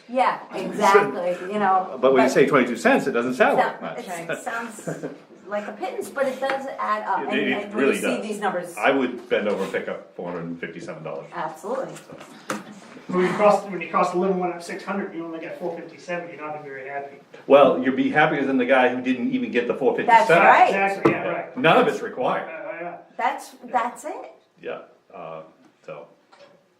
Yeah, exactly, you know. But when you say twenty-two cents, it doesn't sound like Sou- much. it's- Sounds like a pittance, but it does add up, It- and it and when you really see does. these numbers, I would bend over and pick up four hundred and fifty-seven dollars. absolutely. When you cost, when you cost a little one up six hundred, you only get four fifty-seven, you're not gonna be very happy. Well, you'd be happier than the guy who didn't even get the four fifty-seven. That's right. Exactly, yeah, right. None of it's Uh, required, yeah. That's, that's it. yeah, uh, so.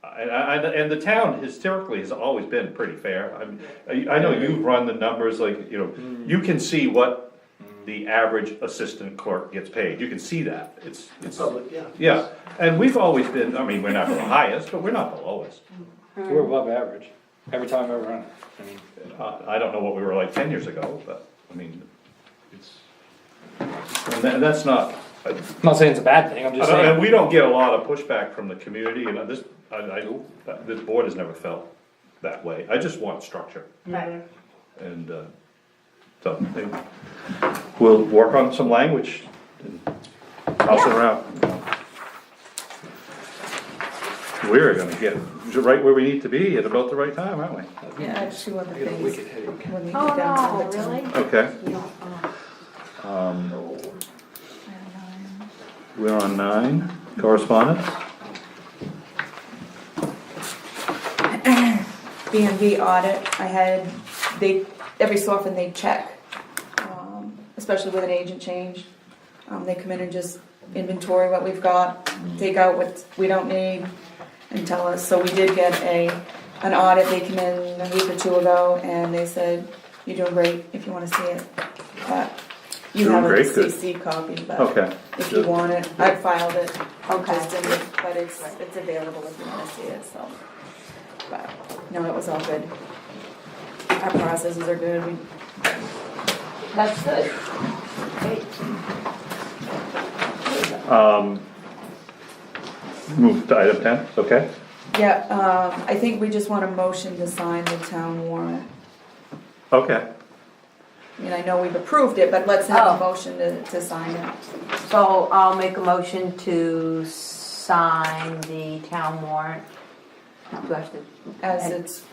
And, and, and the town historically has always been pretty fair, I'm- I, I know you've run the numbers, like, you know, Mm. you can see what the average assistant clerk gets paid, you can see that, it's, it's, Public, yeah. yeah. And we've always been, I mean, we're not the highest, but we're not the lowest. We're above average, every time I run it. I mean, Uh, I don't know what we were like ten years ago, but, I mean, it's, and that, that's not, I- I'm not saying it's a bad thing, I'm just And and saying, we don't get a lot of pushback from the community, and this, I, I, this board has never felt that way, I just want structure, Mm-hmm. Right. and, uh, so, they, we'll work on some language, and toss it Yeah. around. We're gonna get right where we need to be at about the right time, aren't we? Yeah, I have two other I got a things. wicked headache. When we Oh, get down to no, the town. really? Okay, You don't, oh, we're on nine, correspondence, B and B audit, I had, they, every so often they check, um, especially with an agent change. Um, they come in and just inventory what we've got, take out what we don't need, and tell us, so we did get a, an audit, they came in a week or two ago, and they said, you're doing great, if you wanna see it. But you Doing have a great, good. CC copy, Okay. but if you want it, I filed it. Okay. Just in the- But it's, it's available if you wanna see it, so. But, no, it was all good. Our processes are good, we, That's good. Great. move to item ten, okay? yeah, um, I think we just want a motion to sign the town warrant. Okay, I mean, I know we've approved it, but let's have Oh. a motion to, to sign it. So I'll make a motion to sign the town warrant. Do I have to, As it's,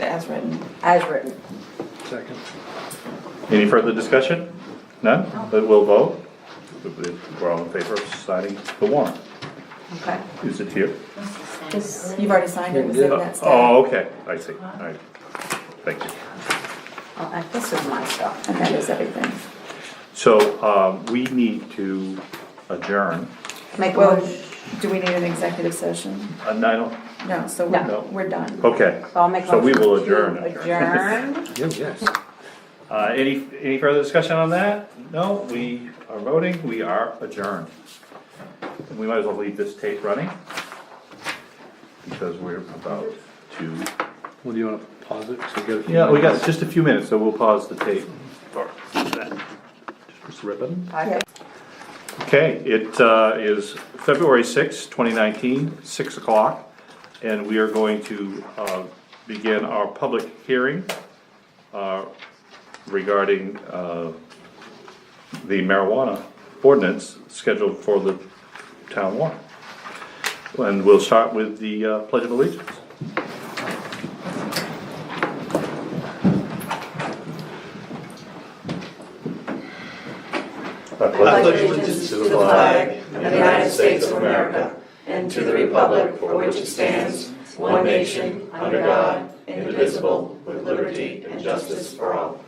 as written. as written? Second. any further discussion? None, but we'll vote, we're all in favor of signing the warrant. Okay. Is it here? This- You've already signed it, it was in that stack. Oh, okay, I see, alright, thank you. oh, I- This is my stuff. And that is everything. So, um, we need to adjourn, Make a Well, motion, do we need an executive session? and I don't, No, so No. we're, we're done. Uh, oh- okay, so I'll make a so motion. we will to adjourn. Adjourn. Yeah, yes. uh, any, any further discussion on that? No, we are voting, we are adjourned. We might as well leave this tape running, because we're about to. Well, do you wanna pause it, so we get a few Yeah, we got minutes? just a few minutes, so we'll pause the tape for that. Just press the red button. Okay. Okay, it uh, is February sixth, 2019, 6 o'clock, and we are going to uh, begin our public hearing uh, regarding uh, the marijuana ordinance scheduled for the town warrant. And we'll start with the uh, Pledge of Allegiance. I pledge allegiance to the flag of the United States of America and to the republic for which it stands, one nation, under God, indivisible, with liberty and justice for all.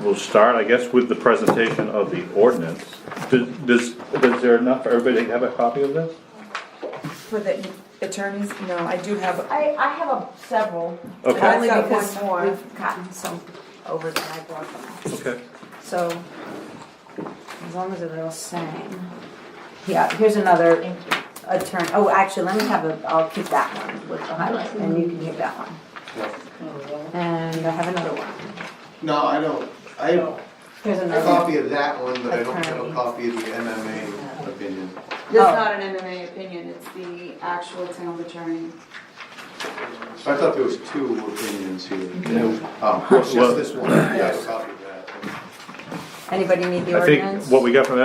We'll start, I guess, with the presentation of the ordinance. Does, does does there enough for everybody to have a copy of this? For the attorneys, no, I do have, I, I have a- several. Okay, Only I've got because one more. we've gotten some over that I brought them. okay. So, as long as they're all same. Yeah, here's another attorney, oh, actually, let me have a, I'll keep that one with the highlight, and you can keep that one. And I have another one, No, I don't, I have here's a another. copy of that one, but I don't have a Attorney. copy of the MMA opinion. it's Oh. not an MMA opinion, it's the actual town attorney. I thought there was two opinions here. Oh, it's just this one, I have a copy of that. Anybody need the I ordinance? think what we got from